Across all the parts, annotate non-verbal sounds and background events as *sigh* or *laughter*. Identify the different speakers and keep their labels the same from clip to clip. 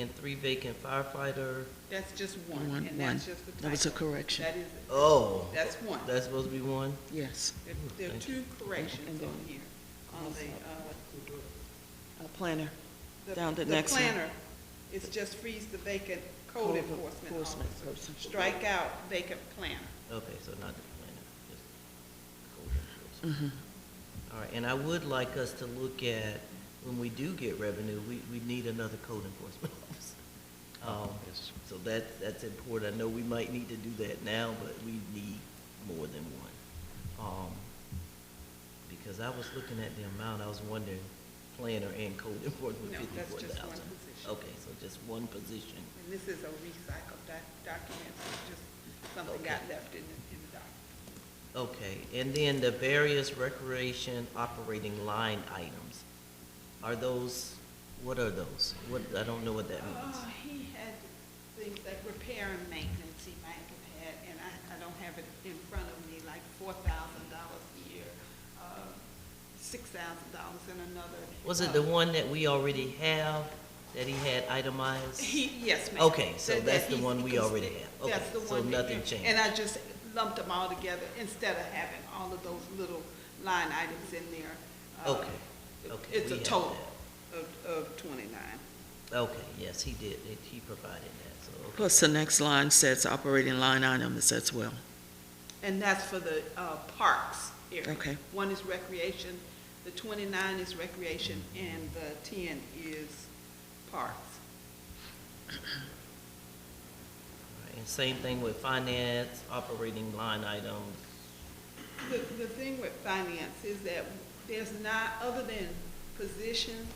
Speaker 1: and three vacant firefighter.
Speaker 2: That's just
Speaker 3: One,
Speaker 2: one, and
Speaker 3: one.
Speaker 2: that's just a typo.
Speaker 3: That was a correction,
Speaker 2: That is,
Speaker 1: Oh,
Speaker 2: that's one. There
Speaker 1: that's supposed to be one?
Speaker 3: yes.
Speaker 2: there are two corrections on here, on the, uh,
Speaker 3: A planner,
Speaker 2: the-
Speaker 3: Down to next one.
Speaker 2: The planner, it's just freeze the vacant code
Speaker 3: Code
Speaker 2: enforcement
Speaker 3: enforcement
Speaker 2: officer.
Speaker 3: person.
Speaker 2: Strike out vacant planner.
Speaker 1: Okay, so not the planner, just code enforcement.
Speaker 3: Mm-hmm.
Speaker 1: All right, and I would like us to look at, when we do get revenue, we, we need another code enforcement *laughs* officer. Um,
Speaker 4: Yes.
Speaker 1: So that, that's important. I know we might need to do that now, but we need more than one. Um, Because I was looking at the amount, I was wondering, planner and code *laughs* enforcement,
Speaker 2: No, that's
Speaker 1: fifty-four
Speaker 2: just one
Speaker 1: thousand.
Speaker 2: position.
Speaker 1: Okay, so just one position.
Speaker 2: And this is a recycled doc- document, so it's just something got
Speaker 1: Okay.
Speaker 2: left in the, in the document.
Speaker 1: Okay, and then the various recreation operating line items, are those, what are those? What, I don't know what that means.
Speaker 2: Uh, He had things like repair and maintenance he might have had, and I, I don't have it in front of me, like four thousand dollars a year, uh, six thousand dollars in another.
Speaker 1: Was it
Speaker 2: uh,
Speaker 1: the one that we already have, that he had itemized?
Speaker 2: He, yes, ma'am.
Speaker 1: Okay, so
Speaker 2: That- that
Speaker 1: that's the
Speaker 2: he's-
Speaker 1: one we
Speaker 2: he's-
Speaker 1: already have. Okay,
Speaker 2: that's the
Speaker 1: so
Speaker 2: one that
Speaker 1: nothing
Speaker 2: you-
Speaker 1: changed.
Speaker 2: And I just lumped them all together instead of having all of those little line items in there. Uh,
Speaker 1: Okay, okay,
Speaker 2: It's
Speaker 1: we
Speaker 2: a
Speaker 1: have
Speaker 2: total of, of twenty-nine.
Speaker 1: Okay, yes, he did, It- he provided that, so, okay.
Speaker 3: Plus, the next line says operating line items as well.
Speaker 2: And that's for the uh, parks area.
Speaker 3: Okay.
Speaker 2: One is recreation, the twenty-nine is recreation, and the ten is parks.
Speaker 1: All right, And same thing with finance, operating line items,
Speaker 2: The, the thing with finance is that there's not, other than position,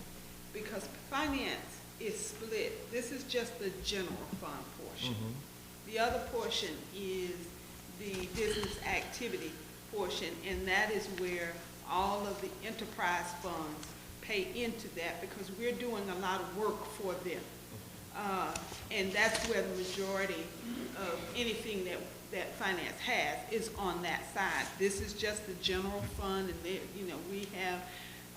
Speaker 2: because finance is split. This is just the general fund portion.
Speaker 1: Mhm.
Speaker 2: The other portion is the business activity portion, and that is where all of the enterprise funds pay into that because we're doing a lot of work for them. Uh, And that's where the majority of anything that, that finance has is on that side. This is just the general fund, and there, you know, we have,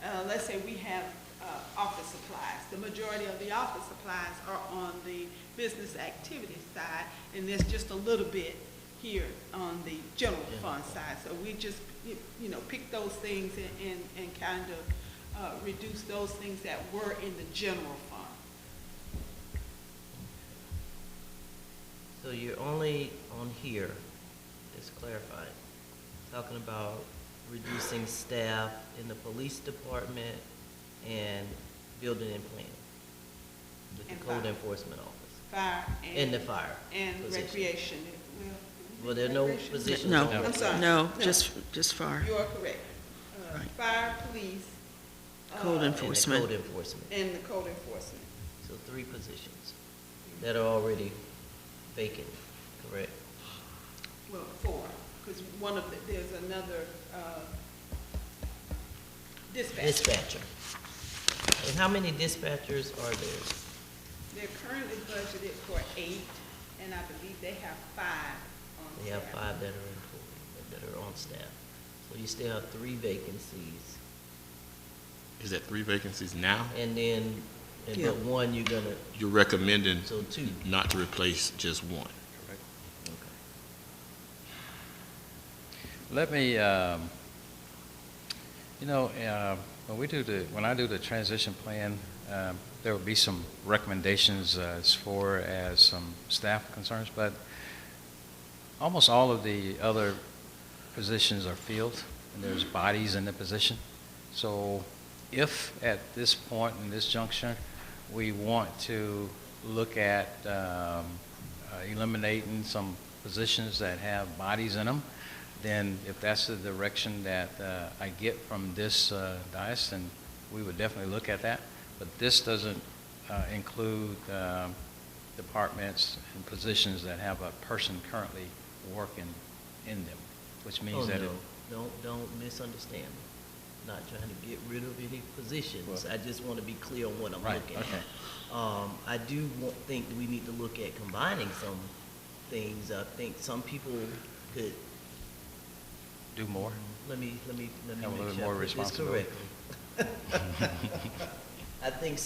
Speaker 2: uh, let's say we have uh, office supplies. The majority of the office supplies are on the business activity side, and there's just a little bit here on the general
Speaker 1: Yeah.
Speaker 2: fund side. So we just, you you know, pick those things and- and, and kind of uh, reduce those things that were in the general fund.
Speaker 1: So you're only on here, just clarifying, talking about reducing staff in the police department and building and planning with the
Speaker 2: And
Speaker 1: code
Speaker 2: fire.
Speaker 1: enforcement office
Speaker 2: Fire and.
Speaker 1: and the fire.
Speaker 2: And
Speaker 1: position.
Speaker 2: recreation.
Speaker 1: Well, there are no
Speaker 2: Recreation?
Speaker 1: positions
Speaker 3: No.
Speaker 1: on
Speaker 2: I'm
Speaker 1: it.
Speaker 2: sorry.
Speaker 3: No, just, just fire.
Speaker 2: You are correct. Uh,
Speaker 3: Right.
Speaker 2: Fire, police. uh,
Speaker 3: Code
Speaker 1: And the
Speaker 3: Enforcement.
Speaker 1: code enforcement,
Speaker 2: And the code enforcement.
Speaker 1: so three positions that are already vacant, correct?
Speaker 2: Well, four, because one of the, there's another uh, dispatch.
Speaker 1: Dispatcher. And how many dispatchers are there?
Speaker 2: They're currently budgeted for eight, and I believe they have five on
Speaker 1: They have
Speaker 2: staff.
Speaker 1: five that are employed, that are on staff. So you still have three vacancies,
Speaker 4: Is that three vacancies now?
Speaker 1: and then, and
Speaker 3: Yeah.
Speaker 1: but one you're gonna,
Speaker 4: You're recommending
Speaker 1: so two.
Speaker 4: not to replace just one?
Speaker 5: Let me, um, you know, uh, when we do the, when I do the transition plan, um, there will be some recommendations uh, as far as some staff concerns, but almost all of the other positions are filled, and there's bodies in the position. So if at this point, in this juncture, we want to look at um, uh, eliminating some positions that have bodies in them, then if that's the direction that uh, I get from this uh, dais, then we would definitely look at that. But this doesn't uh, include um, departments and positions that have a person currently working in them, which
Speaker 1: Oh,
Speaker 5: means that
Speaker 1: no.
Speaker 5: it
Speaker 1: Don't, don't misunderstand me. Not trying to get rid of any positions.
Speaker 5: Well-
Speaker 1: I just wanna be clear on what I'm
Speaker 5: Right,
Speaker 1: looking at.
Speaker 5: okay.
Speaker 1: Um, I do wa- think that we need to look at combining some things. I think some people could
Speaker 5: do
Speaker 1: *laughs*
Speaker 5: more.
Speaker 1: Let me, let me, let me
Speaker 5: Have a
Speaker 1: make
Speaker 5: little
Speaker 1: sure I
Speaker 5: more
Speaker 1: put this
Speaker 5: responsibility.
Speaker 1: correctly. *laughs* I think